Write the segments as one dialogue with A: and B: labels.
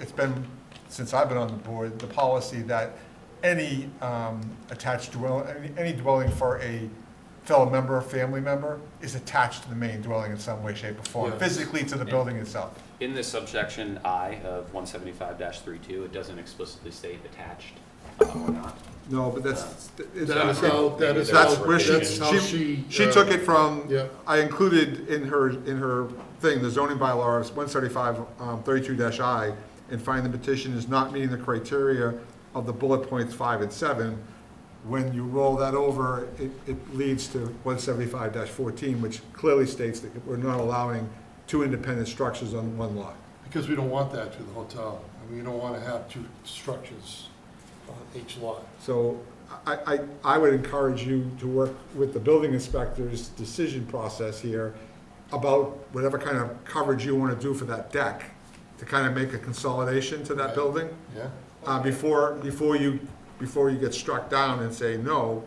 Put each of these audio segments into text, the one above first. A: it's been, since I've been on the board, the policy that any um, attached dwelling, any- any dwelling for a fellow member, or family member, is attached to the main dwelling in some way, shape, or form,
B: Yeah.
A: physically to the
B: Yeah.
A: building itself.
B: In this subsection I of one seventy-five 32 it doesn't explicitly state attached uh, or not.
A: No, but that's, it's-
B: Yeah.
C: That is how, that is how,
A: that's where
C: that's how
A: she,
C: she.
A: she
C: uh,
A: took it from,
C: yeah.
A: I included in her, in her thing, the zoning bylaw is one seventy-five, um, thirty-two dash I, and find the petition is not meeting the criteria of the bullet points five and seven. When you roll that over, it, it leads to one seventy-five fourteen, which clearly states that we're not allowing two independent structures on one lot.
C: Because we don't want that to the hotel. I mean, you don't want to have two structures on each lot.
A: So I, I, I would encourage you to work with the building inspector's decision process here about whatever kind of coverage you want to do for that deck, to kind of make a consolidation to that
C: Right.
A: building,
C: Yeah?
A: uh, before, before you, before you get struck down and say no.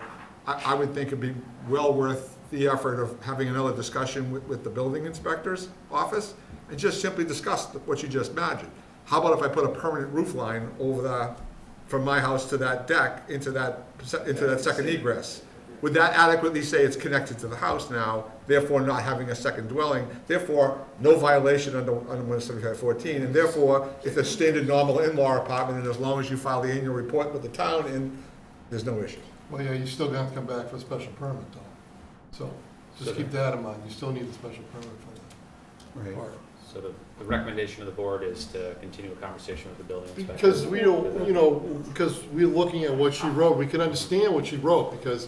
A: I, I would think it'd be well worth the effort of having another discussion with, with the building inspector's office and just simply discuss what you just imagined. How about if I put a permanent roof line over the, from my house to that deck, into that, into that second egress? Would that adequately say it's connected to the house now, therefore not having a second dwelling, therefore no violation under, under one seventy-five fourteen, and therefore it's a standard normal in-law apartment, and as long as you file the annual report with the town, and there's no issue.
C: Well, yeah, you still got to come back for a special permit though. So just keep that in mind. You still need a special permit for that part.
B: So the, the recommendation of the board is to continue a conversation with the building inspector.
C: Because we don't, you know, because we're looking at what she wrote, we can understand what she wrote, because,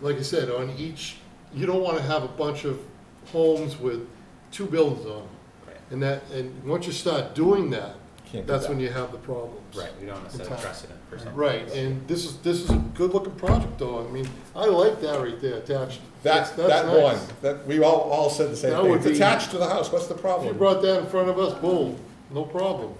C: like I said, on each, you don't wanna have a bunch of homes with two buildings on them.
B: Right.
C: And that, and once you start doing that,
A: Can't do
C: that's
A: that.
C: when you have the problems.
B: Right, we don't want to set a precedent for something.
C: Right, and this is, this is a good-looking project, though, I mean, I like that right there, attached.
A: That,
C: That's- that's
A: that one,
C: nice.
A: that, we all, all said the same
C: That
A: thing,
C: would
A: it's
C: be-
A: attached to the house, what's the
C: If you
A: problem?
C: brought that in front of us, boom, no problem.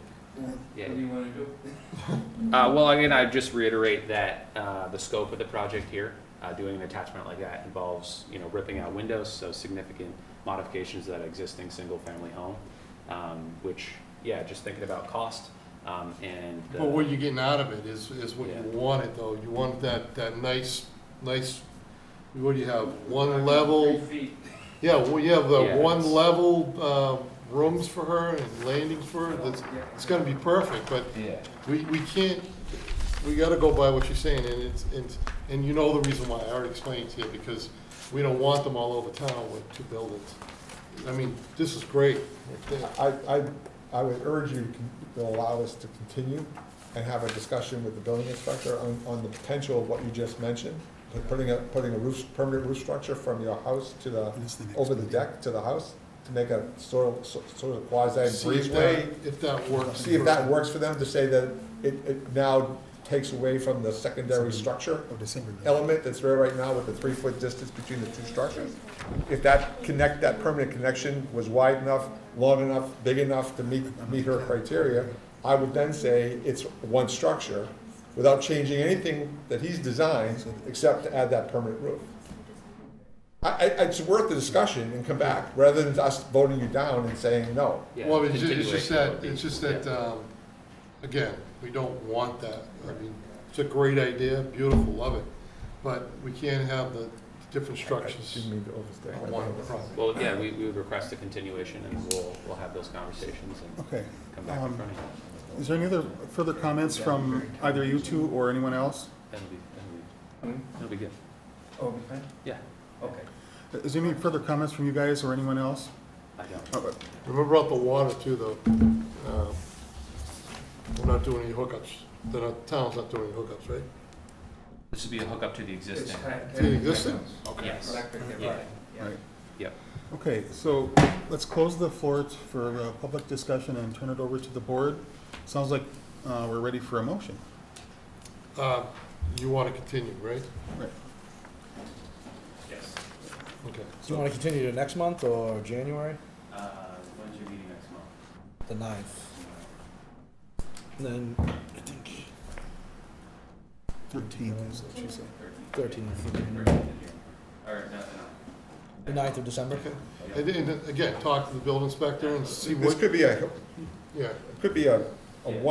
B: Yeah.
D: What do you want to do?
B: Uh, well, again, I just reiterate that, uh, the scope of the project here, uh, doing an attachment like that involves, you know, ripping out windows, so significant modifications to that existing single-family home, um, which, yeah, just thinking about cost, um, and. the-
C: But what you're getting out of it is, is what
B: Yeah.
C: you wanted, though. You wanted that, that nice, nice, what do you have, one level?
D: Three feet.
C: Yeah, well, you have the
B: Yeah,
C: one
B: it's-
C: level, um, rooms for her and landings for her. That's,
D: Yeah.
C: it's gonna be perfect, but
B: Yeah.
C: we, we can't, we gotta go by what you're saying, and it's, and, and you know the reason why. I already explained to you, because we don't want them all over town with two buildings. I mean, this is great. right there.
A: I, I, I would urge you to- to allow us to continue and have a discussion with the building inspector on, on the potential of what you just mentioned, put- putting a, putting a roof, permanent roof structure from your house to the, over the deck to the house, to make a sort of, sort of quasi
C: See if that-
A: breezeway.
C: If that works.
A: See if that works for them, to say that it, it now takes away from the secondary structure element that's there right now with the three-foot distance between the two structures. If that connect, that permanent connection was wide enough, long enough, big enough to meet, meet her criteria, I would then say it's one structure without changing anything that he's designed except to add that permanent roof. I, I, it's worth the discussion and come back rather than us voting you down and saying no.
B: Yeah,
C: Well, it's ju- it's just
B: continuation would
C: that,
B: be-
C: it's just that, um, again, we don't want that. I mean, it's a great idea, beautiful, love it, but we can't have the different structures
A: Didn't mean to overstay.
C: on one property.
B: Well, yeah, we, we would request a continuation and we'll, we'll have those conversations and
E: Okay.
B: come back in
E: Um,
B: front of you.
E: Is there any other further comments from either you two or anyone else?
B: That'll be, that'll
D: Hmm?
B: be, that'll be good.
D: Oh, we can?
B: Yeah,
D: Okay.
E: Is there any further comments from you guys or anyone else?
B: I don't.
E: Oh,
C: Remember about the water too, though. Um, We're not doing any hookups. The not- town's not doing any hookups, right?
B: This would be a hookup to the
D: It's
B: existing.
D: kind of-
C: To the existing?
B: Yes.
D: Electric,
B: Yeah.
D: right, yeah.
E: Right.
B: Yep.
E: Okay, so let's close the floor t- for uh, public discussion and turn it over to the board. Sounds like uh, we're ready for a motion.
C: Uh, You want to continue, right?
E: Right.
F: Yes.
C: Okay.
G: Do you want to continue to next month or January?
F: Uh, when's your meeting next month?
G: The ninth. And then, I think,
E: Thirteen is what she said.
G: thirteenth,
F: Or, no, no.
G: the ninth of December?
C: And then, again, talk to the building inspector and see
A: This
C: what,
A: could be a,
C: yeah.
A: could be a, a
B: Yeah.
A: one